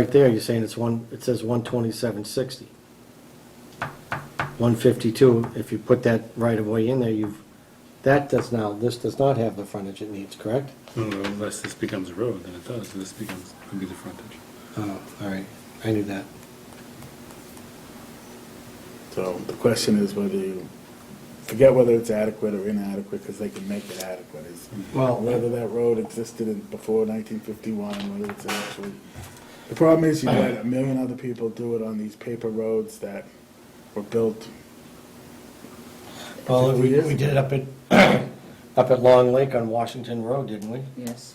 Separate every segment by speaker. Speaker 1: Right there, you're saying it's one, it says one twenty-seven sixty. One fifty-two, if you put that right of way in there, you've, that does now, this does not have the frontage it needs, correct?
Speaker 2: Unless this becomes a road, then it does, this becomes, could be the frontage.
Speaker 1: Oh, all right, I knew that.
Speaker 3: So the question is whether you, forget whether it's adequate or inadequate, because they can make it adequate, is
Speaker 1: Well-
Speaker 3: whether that road existed in, before nineteen fifty-one, whether it's actually, the problem is you had a million other people do it on these paper roads that were built.
Speaker 1: Well, we,
Speaker 3: Yes.
Speaker 1: we did it up at, up at Long Lake on Washington Road, didn't we?
Speaker 4: Yes.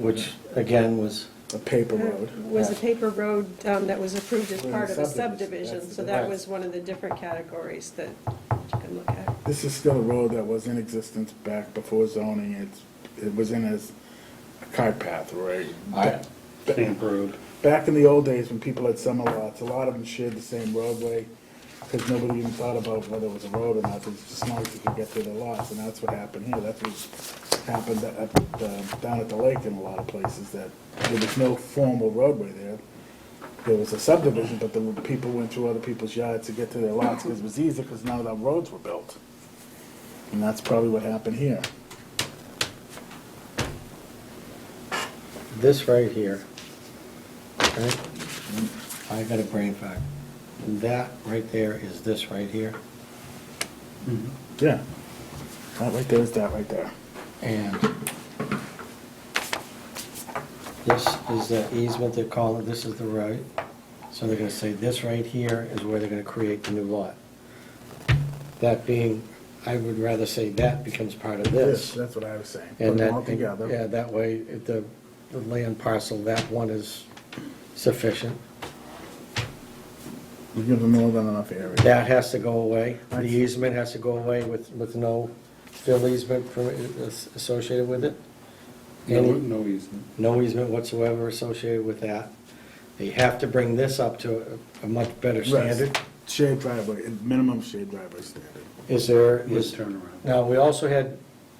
Speaker 1: Which, again, was,
Speaker 3: A paper
Speaker 4: Uh,
Speaker 3: road.
Speaker 4: Was a paper road um, that was approved as
Speaker 3: Well,
Speaker 4: part of a
Speaker 3: subdivision,
Speaker 4: subdivision,
Speaker 3: that's
Speaker 4: so
Speaker 3: the
Speaker 4: that
Speaker 1: difference.
Speaker 4: was one of the different categories that you can look at.
Speaker 3: This is still a road that was in existence back before zoning, it's, it was in as a cart path, right?
Speaker 5: I-
Speaker 2: Camp road.
Speaker 3: Back in the old days, when people had summer lots, a lot of them shared the same roadway, because nobody even thought about whether it was a road or not, they just wanted to get to their lots, and that's what happened here, that's what happened up, uh, down at the lake in a lot of places, that there was no formal roadway there. There was a subdivision, but the people went through other people's yards to get to their lots, because it was easier, because now the roads were built. And that's probably what happened here.
Speaker 1: this right here, right? I got a brain fog. That right there is this right here,
Speaker 3: Yeah. That right there is that right there.
Speaker 1: and this is the easement they're calling, this is the road. So they're gonna say this right here is where they're gonna create the new lot. That being, I would rather say that becomes part of this.
Speaker 3: That's what I was saying. Put
Speaker 1: And
Speaker 3: them all
Speaker 1: that, yeah,
Speaker 3: together.
Speaker 1: that way, if the, the land parcel, that one is sufficient.
Speaker 3: You give them more than enough area.
Speaker 1: That has to go away, the easement has to go away with, with no fill easement for- as- associated with it.
Speaker 2: No,
Speaker 1: Any-
Speaker 2: no easement.
Speaker 1: No easement whatsoever associated with that. They have to bring this up to a- a much better standard.
Speaker 3: Shared driveway, minimum shared driveway standard.
Speaker 1: Is there,
Speaker 2: With
Speaker 1: is,
Speaker 2: turnaround.
Speaker 1: now, we also had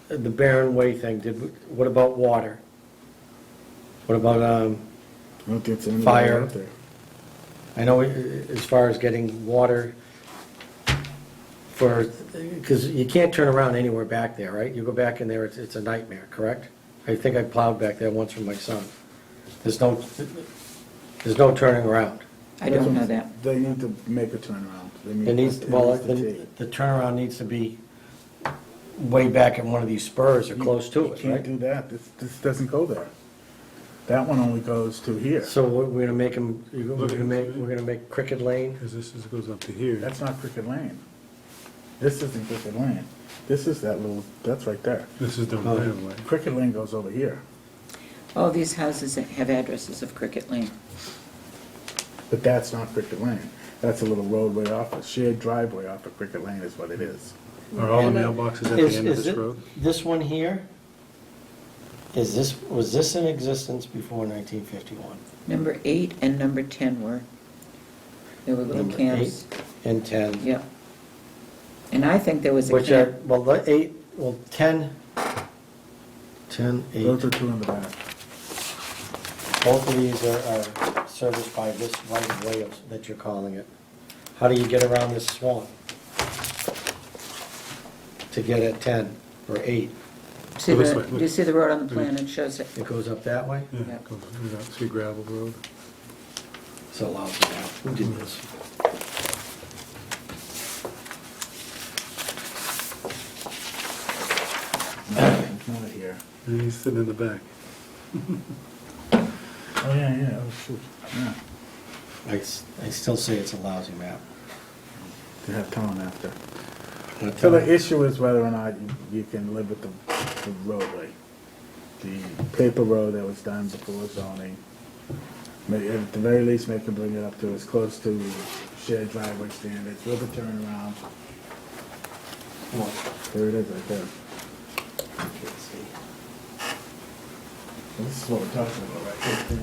Speaker 1: the Barren Way thing, did, we- what about water? What about, um,
Speaker 3: I don't think it's anywhere
Speaker 1: Fire.
Speaker 3: out there.
Speaker 1: I know i- i- as far as getting water for, because you can't turn around anywhere back there, right? You go back in there, it's, it's a nightmare, correct? I think I plowed back there once with my son. There's no, there's no turning around.
Speaker 6: I don't know that.
Speaker 3: They need to make a turnaround. They need.
Speaker 1: It needs,
Speaker 3: it
Speaker 1: well,
Speaker 3: needs to
Speaker 1: the
Speaker 3: take-
Speaker 1: the turnaround needs to be way back in one of these spurs or close to it,
Speaker 3: You can't do
Speaker 1: right?
Speaker 3: that. This, this doesn't go there. That one only goes to here.
Speaker 1: So we're we're gonna make them, we're gonna make, we're gonna make Cricket Lane?
Speaker 2: Because this is, goes up to here.
Speaker 3: That's not Cricket Lane. This isn't Cricket Lane. This is that little, that's right there.
Speaker 2: This is the
Speaker 1: Oh.
Speaker 2: right of way.
Speaker 3: Cricket Lane goes over here.
Speaker 6: All these houses that have addresses of Cricket Lane.
Speaker 3: But that's not Cricket Lane. That's a little roadway off, a shared driveway off of Cricket Lane is what it is.
Speaker 2: Are all
Speaker 4: And
Speaker 2: the
Speaker 4: that-
Speaker 2: mailboxes at the
Speaker 1: Is,
Speaker 2: end of
Speaker 1: is
Speaker 2: this
Speaker 1: it,
Speaker 2: road?
Speaker 1: this one here, is this, was this in existence before 1951?
Speaker 6: Number eight and number 10 were, there were little
Speaker 1: Number
Speaker 6: camps.
Speaker 1: eight And 10?
Speaker 6: Yep. And I think there was a
Speaker 1: Which are,
Speaker 6: camp.
Speaker 1: well, the eight, well, 10, 10, eight.
Speaker 3: Those are two in the back.
Speaker 1: both of these are, are serviced by this right of way of- that you're calling it. How do you get around this swamp? To get at 10 or 8,
Speaker 6: See
Speaker 2: Go this
Speaker 6: the,
Speaker 2: way,
Speaker 6: do
Speaker 2: look.
Speaker 6: you see the road on the plan? It shows it.
Speaker 1: it goes up that way?
Speaker 2: Yeah,
Speaker 6: Yeah.
Speaker 2: it goes through that, through gravel road.
Speaker 1: It's allowed now. Who did this?
Speaker 3: Not here.
Speaker 2: And he's sitting in the back.
Speaker 3: Oh, yeah, yeah, oh, shoot. Yeah,
Speaker 1: I, s- I still say it's a lousy map.
Speaker 3: they have town after.
Speaker 1: I'm gonna
Speaker 3: So
Speaker 1: tell
Speaker 3: the
Speaker 1: you.
Speaker 3: issue is whether or not you- you can live with the the roadway, the paper road that was done before zoning. May- At the very least, make them bring it up to as close to shared driveway standards with a turnaround. Come on, There it is, right there. This is what we're talking about, right there.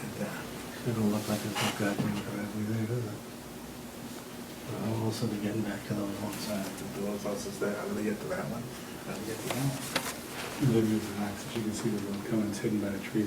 Speaker 3: Right there.
Speaker 1: It'll look like it's a goddamn driveway there, doesn't it? We'll also be getting back to those one side.
Speaker 3: Those houses there, I'm gonna get to that one. I'm gonna get to that one.
Speaker 2: Maybe it's an axe, but you can see the road coming, it's hidden by a tree.